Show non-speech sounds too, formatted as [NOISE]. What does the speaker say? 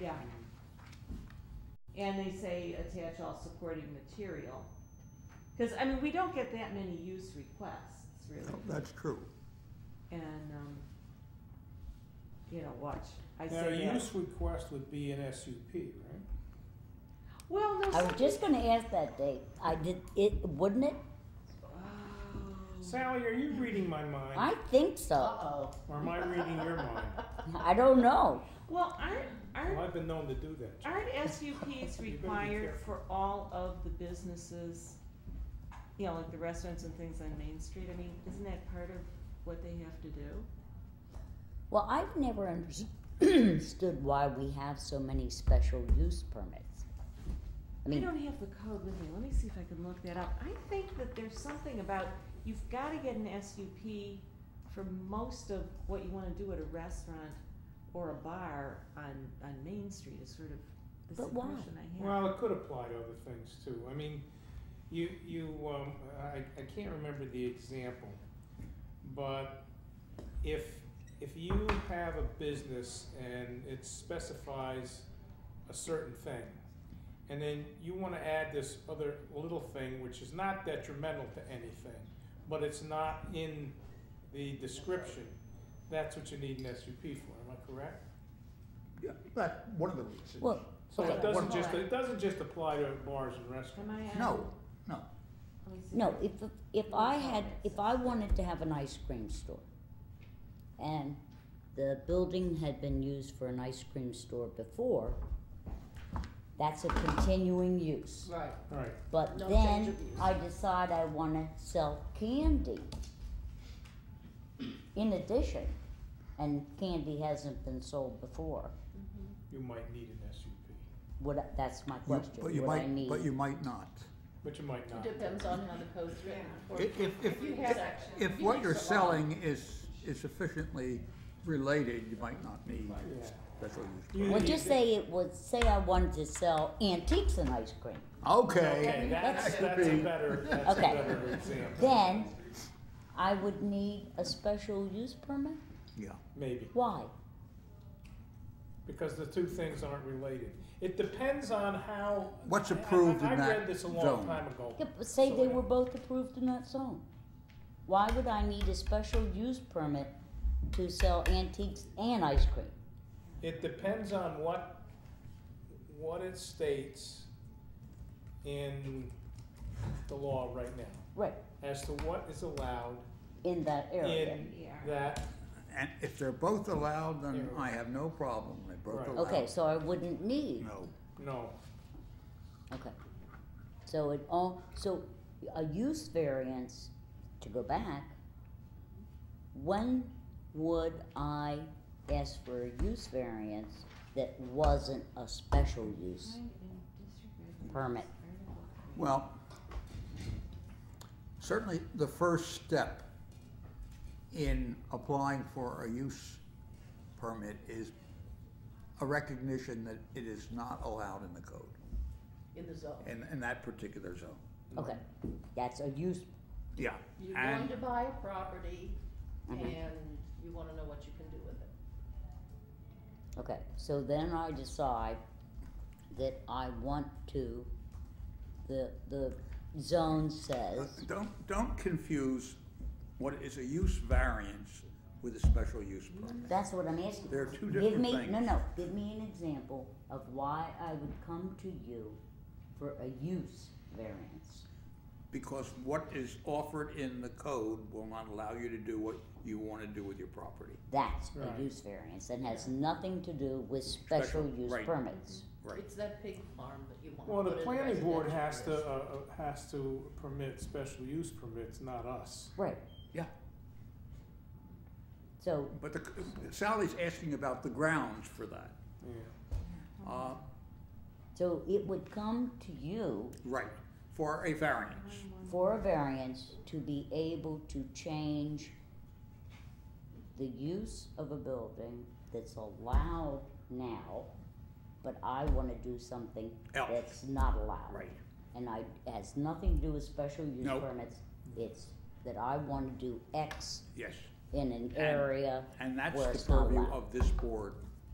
Yeah. And they say attach all supporting material. Cause I mean, we don't get that many use requests really. No, That's true. And, um, you know, watch, I Now, a say that. use request would be an SUP, right? Well, no. I was some- just gonna ask that, Dave. I did, it, wouldn't it? Oh. Sally, are you reading my mind, I think so. Uh-oh. or am I reading your mind? I don't know. Well, aren't, Well, aren't, I've been known to do that. aren't SUPs required careful. for all of the businesses? You know, like the restaurants and things on Main Street, I mean, isn't that part of what they have to do? Well, I've never understood [CLEARS THROAT] why we have so many special use permits. I I mean, don't have the code with me, let me see if I can look that up. I think that there's something about, you've gotta get an SUP for most of what you wanna do at a restaurant or a bar on, on Main Street is sort of the But why? impression I have. Well, it could apply to other things too. I mean, you, you, um, I, I can't remember the example, but if, if you have a business and it specifies a certain thing, and then you wanna add this other little thing, which is not detrimental to anything, but it's not in the description, that's what you need an SUP for, am I correct? Yeah, That's one of the reasons. well, So it Okay. doesn't just, it doesn't just apply to bars and Am restaurants. I on? No, no. Let me see. no, if, if I had, if I wanted to have an ice cream store and the building had been used for an ice cream store before, that's a continuing use. Right. Right, But No then change of use. I decide I wanna sell candy. In addition, and candy hasn't been sold before, you might need an SUP, would, I- that's my You- question, But you would I might, need? but you might not. but you might not. Depends on how the code's written. I- If, if, you if, had- if what you're selling is, is sufficiently related, you might not need Yeah. special You use. Well, need just it. say it was, say I wanted to sell antiques and ice cream, Okay, Okay, that's, That could that's a be- [LAUGHS] better, that's a Okay. better example, then I would need a special use permit? yeah. maybe, Why? because the two things aren't related. It depends on how. What's I- I- approved in I that read this a long zone. time ago. Yeah, but say so they I- were both approved in that zone. Why would I need a special use permit to sell antiques and ice cream? It depends on what, what it states in the law right now, Right, as to what is allowed in that area. in Yeah. that And if they're both allowed, then Yeah. I have no problem. They're both Right. allowed. Okay, so I wouldn't need, No, No, okay. So it all, so a use variance, to go back, when would I ask for a use variance that wasn't a special use Find and disregard the permit? article. well, certainly the first step in applying for a use permit is a recognition that it is not allowed in the code, In the zone. in, in that particular zone. Okay, that's a use, Yeah. You're And- going to buy a property and Mhm. you wanna know what you can do with it. okay, so then I decide that I want to, the, the zone Uh, says, Don't, don't confuse what is a use variance with a special use permit. that's what I'm asking. There are two Give different me, no, things. no, give me an example of why I would come to you for a use variance. Because what is offered in the code will not allow you to do what you want to do with your property. That's Right. a use variance and has nothing to do with special Special, use right. permits. Right. It's that pig farm that you wanna well, put the in planning board has to, residential uh, uh, has to permit special use permits, not us. Right, Yeah. so, But the, Sally's asking about the grounds for that. Yeah. Uh, so it would come to you Right, for a variance. for a variance to be able to change the use of a building that's allowed now, but I wanna do something Else. that's not allowed. Right. And I, it has nothing to do with special use Nope. permits, it's that I wanna do X Yes. in an area And that's where it's the not purview allowed. of this board